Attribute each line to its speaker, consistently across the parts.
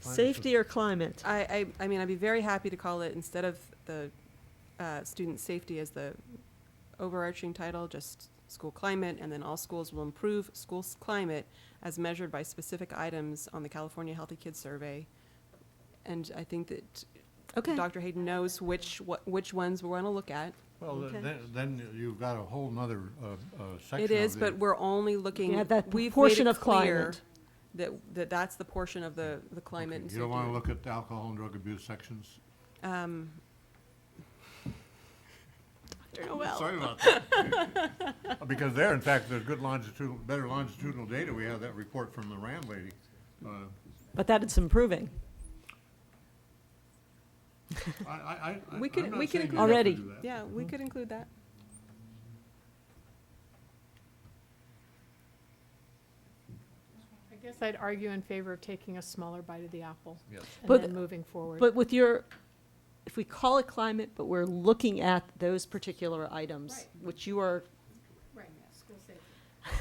Speaker 1: Safety or climate?
Speaker 2: I, I, I mean, I'd be very happy to call it, instead of the uh, student safety as the overarching title, just school climate, and then all schools will improve school's climate as measured by specific items on the California Healthy Kids Survey. And I think that
Speaker 1: Okay.
Speaker 2: Dr. Hayden knows which, what- which ones we want to look at.
Speaker 3: Well,
Speaker 1: Okay.
Speaker 3: then, then you've got a whole nother, uh, uh, section
Speaker 2: It is,
Speaker 3: of
Speaker 2: but
Speaker 3: the-
Speaker 2: we're only looking,
Speaker 1: Yeah,
Speaker 2: we've
Speaker 1: that
Speaker 2: made
Speaker 1: portion
Speaker 2: it
Speaker 1: of
Speaker 2: clear
Speaker 1: climate.
Speaker 2: that, that that's the portion of the, the climate and
Speaker 3: You don't wanna
Speaker 2: safety.
Speaker 3: look at alcohol and drug abuse sections?
Speaker 2: Um, Dr. Noel.
Speaker 3: Sorry about that. Because there, in fact, there's good longitudinal, better longitudinal data. We have that report from the Rand lady. Uh,
Speaker 1: But that it's improving.
Speaker 3: I, I, I, I'm
Speaker 2: We could-
Speaker 3: not
Speaker 2: we could
Speaker 3: saying
Speaker 2: include-
Speaker 3: you have to
Speaker 1: Already.
Speaker 3: do that.
Speaker 2: Yeah,
Speaker 1: Hmm.
Speaker 2: we could include that.
Speaker 4: I guess I'd argue in favor of taking a smaller bite of the apple
Speaker 3: Yes.
Speaker 1: But-
Speaker 4: and then moving forward.
Speaker 1: But with your, if we call it climate, but we're looking at those particular items, which you are,
Speaker 4: Right, school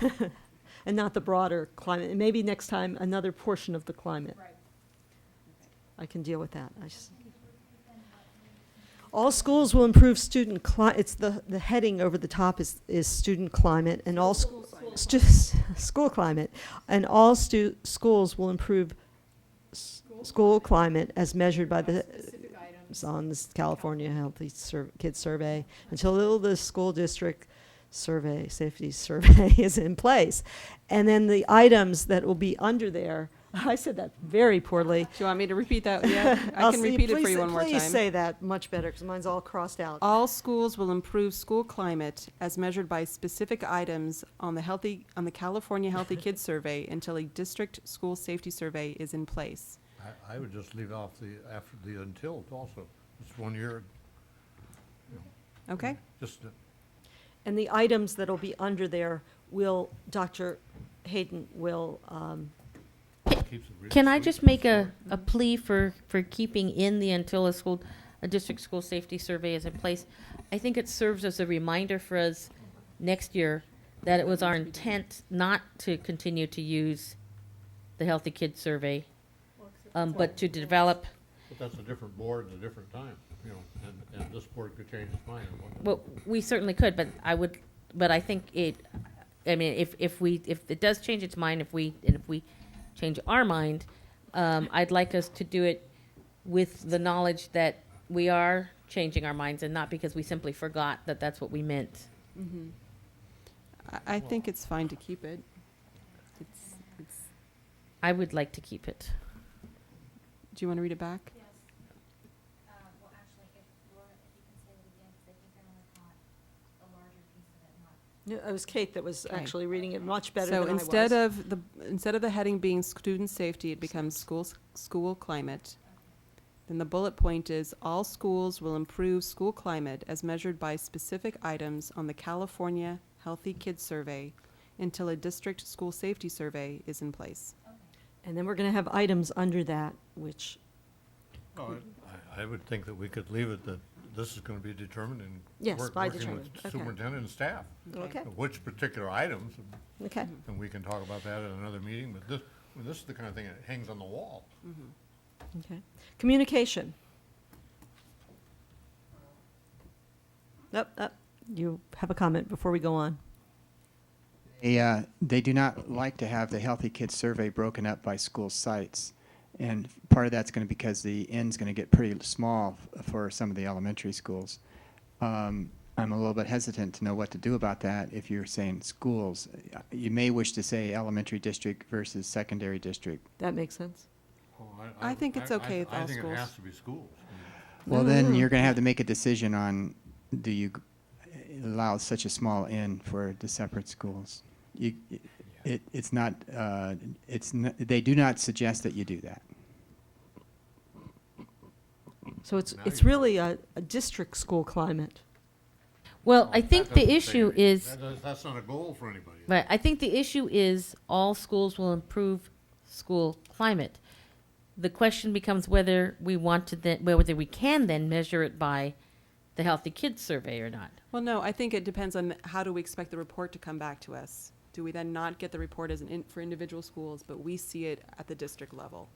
Speaker 4: safety.
Speaker 1: and not the broader climate, and maybe next time, another portion of the climate.
Speaker 4: Right.
Speaker 1: I can deal with that. I just. All schools will improve student cli, it's the, the heading over the top is, is student climate and all, sch- stu- school climate. And all stu, schools will improve s- school climate as measured by the,
Speaker 4: Specific items.
Speaker 1: is on this California Healthy Sur- Kids Survey until the school district survey, safety survey is in place. And then the items that will be under there, I said that very poorly.
Speaker 2: Do you want me to repeat that? Yeah, I
Speaker 1: I'll
Speaker 2: can
Speaker 1: see-
Speaker 2: repeat it for
Speaker 1: please-
Speaker 2: you one more
Speaker 1: Please
Speaker 2: time.
Speaker 1: say that much better, because mine's all crossed out.
Speaker 2: All schools will improve school climate as measured by specific items on the healthy, on the California Healthy Kids Survey until a district school safety survey is in place.
Speaker 3: I, I would just leave off the, after the until also. It's one year,
Speaker 2: Okay?
Speaker 3: just, uh,
Speaker 1: And the items that'll be under there will, Dr. Hayden will, um,
Speaker 3: keeps it real.
Speaker 5: Can I
Speaker 3: sweet
Speaker 5: just
Speaker 3: and
Speaker 5: make a,
Speaker 3: short.
Speaker 5: a plea for, for keeping in the until a school, a district school safety survey is in place? I think it serves as a reminder for us next year that it was our intent not to continue to use the Healthy Kids Survey, um, but to develop,
Speaker 3: But that's a different board and a different time, you know, and, and this board could change its mind. on what-
Speaker 5: well, we certainly could, but I would, but I think it, I mean, if, if we, if it does change its mind, if we, and if we change our mind, um, I'd like us to do it with the knowledge that we are changing our minds and not because we simply forgot that that's what we meant.
Speaker 1: Mm-hmm.
Speaker 2: I, I think it's fine to keep it. It's, it's,
Speaker 5: I would like to keep it.
Speaker 2: do you want to read it back?
Speaker 6: Yes. Uh, well, actually, if Laura, if you can say it again, because I think I only caught a larger piece of it, not
Speaker 1: no, it was Kate that was
Speaker 2: Okay.
Speaker 1: actually reading it much better than I
Speaker 2: So
Speaker 1: was.
Speaker 2: instead of the, instead of the heading being student safety, it becomes schools, school climate. Then the bullet point is, all schools will improve school climate as measured by specific items on the California Healthy Kids Survey until a district school safety survey is in place.
Speaker 1: And then we're gonna have items under that, which
Speaker 3: Well, Oh, I, I would think that we could leave it that this is gonna be determined and.
Speaker 1: Yes,
Speaker 3: work-
Speaker 1: by
Speaker 3: working with
Speaker 1: determined. Okay.
Speaker 3: Superintendent and staff.
Speaker 1: Okay. Okay.
Speaker 3: Which particular items,
Speaker 1: Okay.
Speaker 2: Mm-hmm.
Speaker 3: and we can talk about that at another meeting, but this, I mean, this is the kind of thing that hangs on the wall.
Speaker 1: Okay. Communication. Up, up. You have a comment before we go on.
Speaker 7: They, uh, they do not like to have the Healthy Kids survey broken up by school sites. And part of that's going to be because the end's going to get pretty small f- for some of the elementary schools. Um, I'm a little bit hesitant to know what to do about that if you're saying schools. Uh, You may wish to say elementary district versus secondary district.
Speaker 1: That makes sense.
Speaker 2: I I- think it's I- I- okay with I all think it
Speaker 3: Oh,
Speaker 2: schools.
Speaker 3: I think it
Speaker 2: has
Speaker 3: has to be schools.
Speaker 7: Well, then you're going to have to make a decision on do you g- allow such a small end for the separate schools? You, it, it's not, uh, it's, n- they do not suggest that you do that.
Speaker 1: So it's,
Speaker 3: Now
Speaker 1: it's
Speaker 3: you're
Speaker 1: really a, a district school climate.
Speaker 5: Well, I think the issue is,
Speaker 3: That's not a goal for anybody.
Speaker 5: right, I think the issue is all schools will improve school climate. The question becomes whether we want to then, whether we can then measure it by the Healthy Kids Survey or not.
Speaker 2: Well, no, I think it depends on how do we expect the report to come back to us? Do we then not get the report as an, in- for individual schools, but we see it at the district level?